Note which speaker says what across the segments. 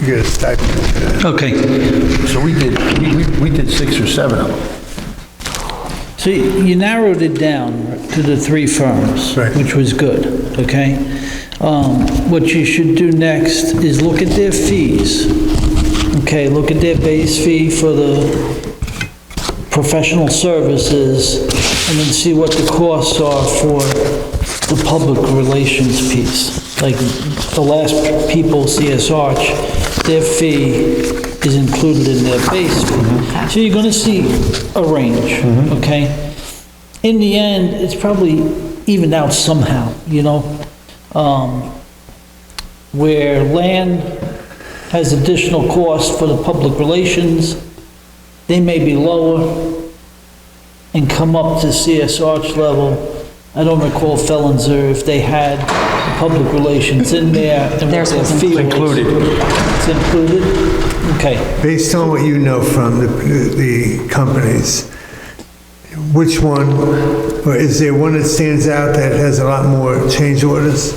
Speaker 1: You get a stipend.
Speaker 2: Okay.
Speaker 3: So we did, we, we- we did six or seven of them.
Speaker 2: So you narrowed it down to the three firms,
Speaker 1: Right.
Speaker 2: which was good, okay? Um, What you should do next is look at their fees, okay? Look at their base fee for the professional services, and then see what the costs are for the public relations piece. Like, the last people, CS Arch, their fee is included in their base fee. So you're gonna see a range, okay? In the end, it's probably evened out somehow, you know? Um, Where land has additional cost for the public relations, they may be lower and come up to CS Arch level. I don't recall Fellinzer if they had public relations in there and what
Speaker 4: Theirs
Speaker 2: their
Speaker 4: was
Speaker 2: fee was.
Speaker 3: included.
Speaker 2: It's included? Okay.
Speaker 1: Based on what you know from the, the companies, which one, or is there one that stands out that has a lot more change orders?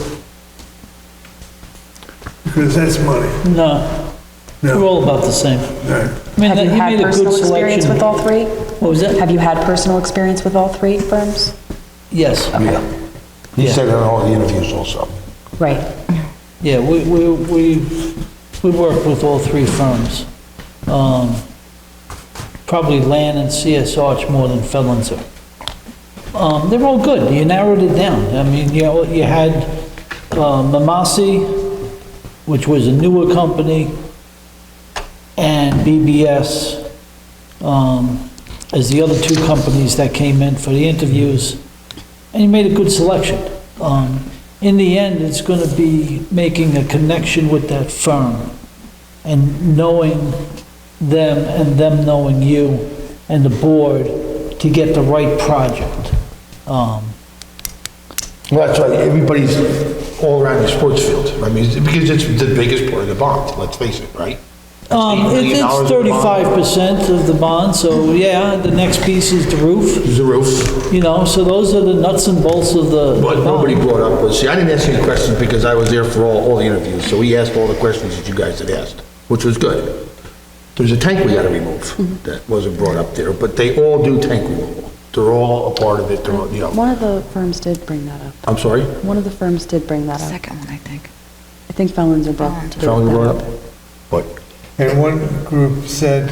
Speaker 1: Because that's money.
Speaker 2: No, we're
Speaker 1: No,
Speaker 2: all about the same.
Speaker 1: no.
Speaker 2: I mean,
Speaker 4: Have you had
Speaker 2: made a good
Speaker 4: personal experience
Speaker 2: selection.
Speaker 4: with all three?
Speaker 2: What was that?
Speaker 4: Have you had personal experience with all three firms?
Speaker 2: Yes,
Speaker 3: Yeah. He
Speaker 2: Yeah.
Speaker 3: said in all the interviews also.
Speaker 4: Right.
Speaker 2: yeah, we, we, we, we work with all three firms. Um, Probably Land and CS Arch more than Felonzer. Um, they're all good, you narrowed it down. I mean, you know, you had, uh, Mamasi, which was a newer company, and BBS, um, as the other two companies that came in for the interviews, and you made a good selection. Um, In the end, it's going to be making a connection with that firm and knowing them and them knowing you and the board to get the right project. Um,
Speaker 3: Well, that's why everybody's all around the sports field. I mean, because it's the biggest part of the bond, let's face it, right?
Speaker 2: um, It's
Speaker 3: $8 million
Speaker 2: it's
Speaker 3: of the bond.
Speaker 2: 35% of the bond, so yeah, the next piece is the roof,
Speaker 3: There's the roof.
Speaker 2: you know, so those are the nuts and bolts of the the
Speaker 3: What
Speaker 2: bond.
Speaker 3: nobody brought up was, see, I didn't ask any questions because I was there for all, all the interviews, so he asked all the questions that you guys had asked, which was good. There's a tank we gotta remove that wasn't brought up there, but they all do tank removal. They're all a part of it, they're, all, you know,
Speaker 5: One of the firms did bring that up.
Speaker 3: I'm sorry?
Speaker 5: One of the firms did bring that up.
Speaker 6: Second one, I think.
Speaker 5: I think Fallon's are brought to do
Speaker 3: Charlie
Speaker 5: with
Speaker 3: brought
Speaker 5: that.
Speaker 3: up? What?
Speaker 1: And one group said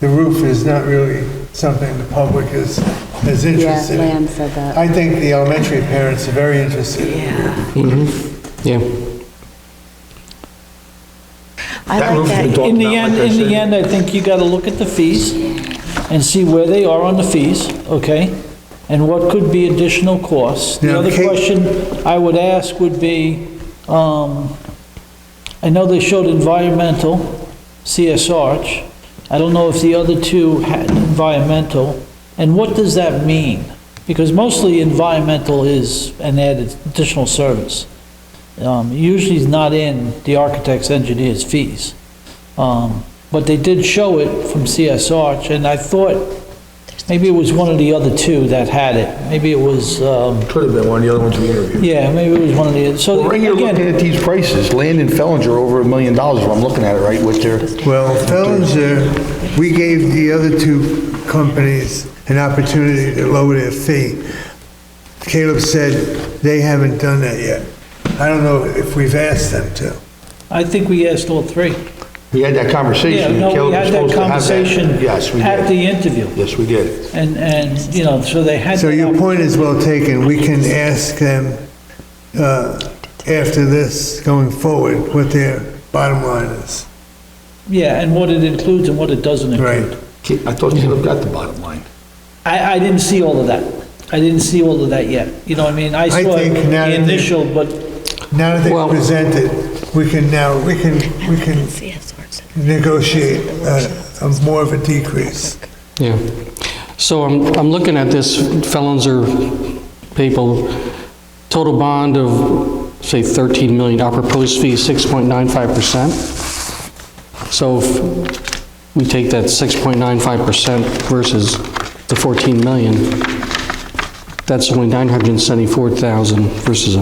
Speaker 1: the roof is not really something the public is, is
Speaker 5: Yeah,
Speaker 1: interested in.
Speaker 5: Land said that.
Speaker 1: I think the elementary parents are very interested.
Speaker 7: Mm-hmm. Yeah.
Speaker 6: I
Speaker 3: That
Speaker 6: like
Speaker 3: roof's been
Speaker 6: that.
Speaker 3: talked
Speaker 2: In
Speaker 3: about,
Speaker 2: the
Speaker 3: like
Speaker 2: end,
Speaker 3: I
Speaker 2: in the
Speaker 3: said.
Speaker 2: end, I think you gotta look at the fees and see where they are on the fees, okay? And what could be additional costs. The
Speaker 1: Yeah,
Speaker 2: other
Speaker 1: Kate-
Speaker 2: question I would ask would be, um, I know they showed environmental, CS Arch. I don't know if the other two had environmental, and what does that mean? Because mostly environmental is an added additional service. Um, Usually is not in the architect's engineer's fees. Um, But they did show it from CS Arch, and I thought maybe it was one of the other two that had it. Maybe it was, um,
Speaker 3: Could have been one of the other ones we interviewed.
Speaker 2: yeah, maybe it was one of the, so
Speaker 3: Well, right here, looking
Speaker 2: again,
Speaker 3: at these prices, land and Fellinger are over a million dollars, if I'm looking at it right, with their,
Speaker 1: Well, Fellinger, we gave the other two companies an opportunity to lower their fee. Caleb said they haven't done that yet. I don't know if we've asked them to.
Speaker 2: I think we asked all three.
Speaker 3: we had that
Speaker 2: Yeah,
Speaker 3: conversation. and
Speaker 2: no,
Speaker 3: Caleb
Speaker 2: we
Speaker 3: was
Speaker 2: had that
Speaker 3: supposed to have
Speaker 2: conversation
Speaker 3: Yes, we
Speaker 2: at
Speaker 3: did.
Speaker 2: the interview,
Speaker 3: Yes, we did.
Speaker 2: and, and, you know, so they had.
Speaker 1: So
Speaker 2: that
Speaker 1: your
Speaker 2: opportunity.
Speaker 1: point is well taken. We can ask them, uh, after this, going forward, what their bottom line is.
Speaker 2: Yeah, and what it includes and what it doesn't include.
Speaker 1: Right.
Speaker 3: Ca- I thought Caleb got the bottom line.
Speaker 2: I, I didn't see all of that. I didn't see all of that yet. You know, what I mean, I saw
Speaker 1: think now that
Speaker 2: the
Speaker 1: they-
Speaker 2: initial, but
Speaker 1: Now that
Speaker 7: Well-
Speaker 1: they've presented, we can now, we can, we can negotiate uh, a more of a decrease.
Speaker 7: Yeah. So I'm, I'm looking at this Felonzer people, total bond of, say, 13 million, our proposed fee is 6.95%. So if we take that 6.95% versus the 14 million, that's only 974,000 versus